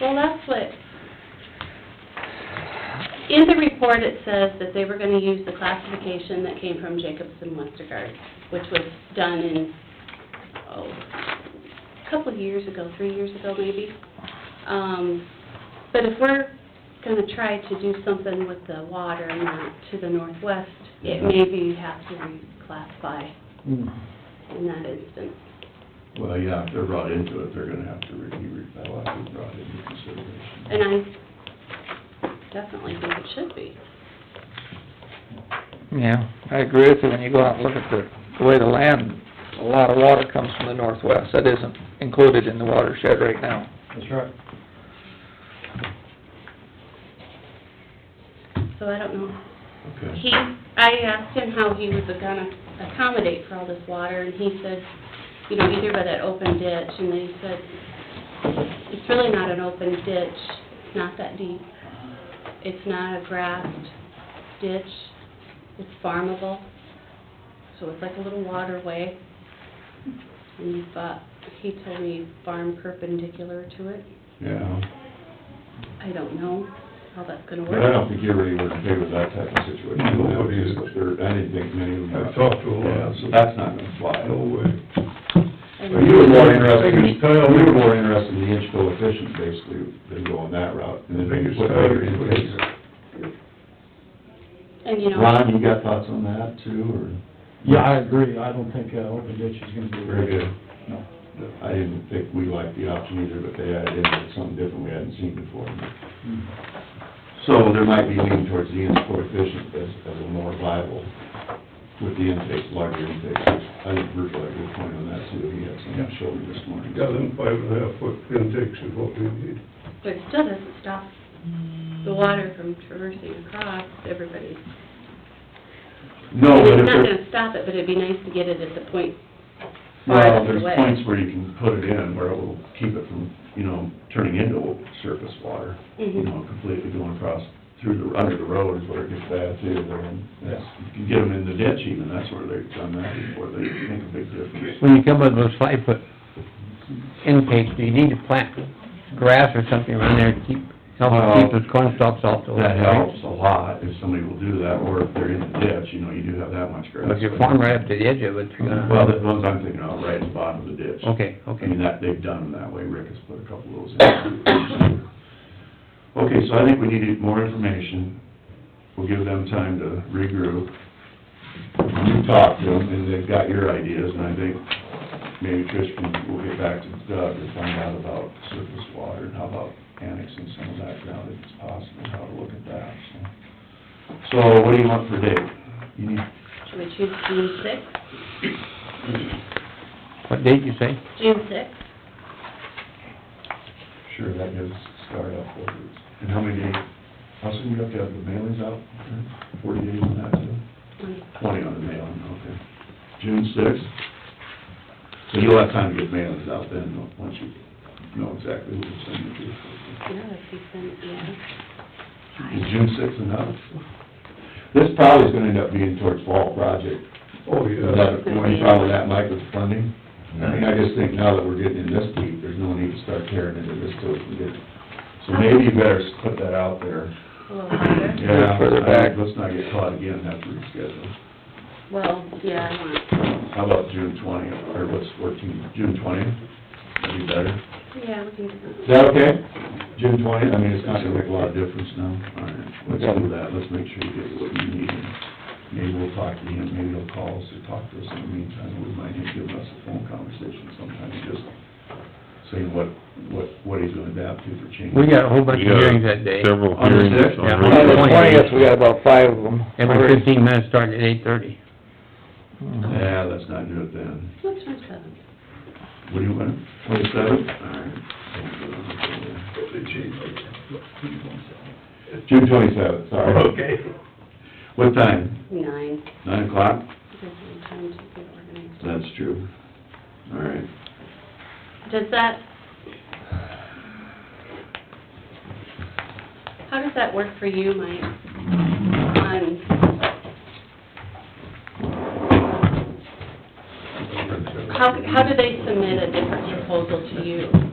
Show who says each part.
Speaker 1: Well, that's what, in the report, it says that they were gonna use the classification that came from Jacobson Westergaard, which was done in, oh, a couple of years ago, three years ago maybe. Um, but if we're gonna try to do something with the water and that to the northwest, it maybe have to reclassify
Speaker 2: Hmm.
Speaker 1: in that instance.
Speaker 3: Well, yeah, if they're brought into it, they're gonna have to re- be, re- that'll have to be brought into consideration.
Speaker 1: And I definitely think it should be.
Speaker 4: Yeah, I agree with you, when you go out and look at the, the way the land, a lot of water comes from the northwest, that isn't included in the watershed right now.
Speaker 3: That's right.
Speaker 1: So I don't know. He,
Speaker 3: Okay.
Speaker 1: I asked him how he was gonna accommodate for all this water, and he said, you know, either by that open ditch, and then he said, it's really not an open ditch, it's not that deep. It's not a grassed ditch, it's farmable, so it's like a little waterway. And he thought, he told me farm perpendicular to it.
Speaker 3: Yeah,
Speaker 1: I don't know how that's gonna
Speaker 3: but I
Speaker 1: work.
Speaker 3: don't think you really were okay with that type of situation.
Speaker 5: No.
Speaker 3: Nobody is, but there, I didn't think many of them.
Speaker 5: I've talked to a lot.
Speaker 3: Yeah, so that's not gonna fly.
Speaker 5: No way.
Speaker 3: But you were more interested,
Speaker 5: Biggest tile-
Speaker 3: you were more interested in the inch coefficient basically than going that route. And then
Speaker 5: Biggest
Speaker 3: what
Speaker 5: tile
Speaker 3: other
Speaker 5: you put
Speaker 3: intakes?
Speaker 5: in.
Speaker 1: And you know.
Speaker 3: Ron, you got thoughts on that too, or?
Speaker 2: Yeah, I agree, I don't think, uh, open ditch is gonna be.
Speaker 3: Very good.
Speaker 2: No.
Speaker 3: I didn't think we liked the option either, but they added in something different we hadn't seen before. So there might be leaning towards the inch coefficient as, as a more viable with the intakes, larger intakes. I think Virgil had a good point on that too, he had some shoulder this morning.
Speaker 5: Yeah, them five and a half foot intakes is what we need.
Speaker 1: But it still doesn't stop
Speaker 3: Mm.
Speaker 1: the water from traversing across everybody's.
Speaker 3: No,
Speaker 1: It's
Speaker 3: but if
Speaker 1: not
Speaker 3: there,
Speaker 1: gonna stop it, but it'd be nice to get it at the point
Speaker 3: well,
Speaker 1: farthest
Speaker 3: there's
Speaker 1: away.
Speaker 3: points where you can put it in where it will keep it from, you know, turning into surface water. You
Speaker 1: Mhm.
Speaker 3: know, completely going across through the, under the road is where it gets bad too, They're in that's, if you get them in the ditch even, that's where they've done that before, they make a big difference.
Speaker 6: When you come up with five foot intake, do you need to plant grass or something around there to keep, help keep those corn stalks off the
Speaker 3: That helps a lot if somebody will do that, or if they're in the ditch, you know, you do have that much grass.
Speaker 6: With your farm right up to the edge of it, you're gonna...
Speaker 3: Well, the ones I'm thinking of, right at the bottom of the ditch.
Speaker 6: Okay,
Speaker 3: I mean,
Speaker 6: okay.
Speaker 3: that, they've done them that way, Rick has put a couple of those in. Okay, so I think we needed more information, we'll give them time to regroup. You talk to them, and they've got your ideas, and I think maybe Trish can, we'll get back to Doug and find out about surface water, and how about annexing some of that ground if it's possible, how to look at that, so. So what do you want for date? You need,
Speaker 1: Should we choose June sixth?
Speaker 6: What date you say?
Speaker 1: June sixth?
Speaker 3: sure, that gives us a start up for it. And how many days, how soon you have to have the mailings out? Forty days on that, too?
Speaker 1: Mm,
Speaker 3: Twenty on the mailing, okay. June sixth? So you'll have time to get mailings out then, though, once you know exactly who to send it to.
Speaker 1: Yeah, if you send, yeah.
Speaker 3: Is June sixth enough? This probably is gonna end up being towards fall project.
Speaker 5: Oh,
Speaker 3: Is
Speaker 5: yeah.
Speaker 3: that, uh, you follow that, Mike, with funding? I mean, I just think now that we're getting in this deep, there's no need to start tearing into this till we can get, so maybe you better put that out there.
Speaker 1: A little harder.
Speaker 3: Yeah,
Speaker 4: Further back.
Speaker 3: Let's not get caught again after we schedule.
Speaker 1: Well, yeah, I want,
Speaker 3: How about June twentieth, or what's fourteen, June twentieth? That'd be better.
Speaker 1: yeah, we can do
Speaker 3: Is that okay? June twentieth, I mean, it's not gonna make a lot of difference now. All right, let's do that, let's make sure you get what you need. Maybe we'll talk to him, maybe he'll call us or talk to us in the meantime, we might need to give us a phone conversation sometime, just saying what, what, what he's gonna adapt to for change.
Speaker 6: We got a whole bunch of
Speaker 7: Yeah,
Speaker 6: hearings that day.
Speaker 7: Several
Speaker 3: On the
Speaker 7: hearings
Speaker 3: sixth?
Speaker 7: on
Speaker 6: Yeah.
Speaker 4: On the
Speaker 7: road.
Speaker 4: twentieth, we got about five of them.
Speaker 6: Every fifteen minutes starting at eight-thirty.
Speaker 3: Yeah, let's not do it then.
Speaker 1: that. What's my seventh?
Speaker 3: What do you want, twenty-seven? All right. June twenty-seventh, sorry.
Speaker 5: Okay.
Speaker 3: What time?
Speaker 1: Nine.
Speaker 3: Nine o'clock?
Speaker 1: Gives me time to get organized.
Speaker 3: That's true. All right.
Speaker 1: Does that... How does that work for you, Mike? Um, On How, how do they submit a different proposal to you?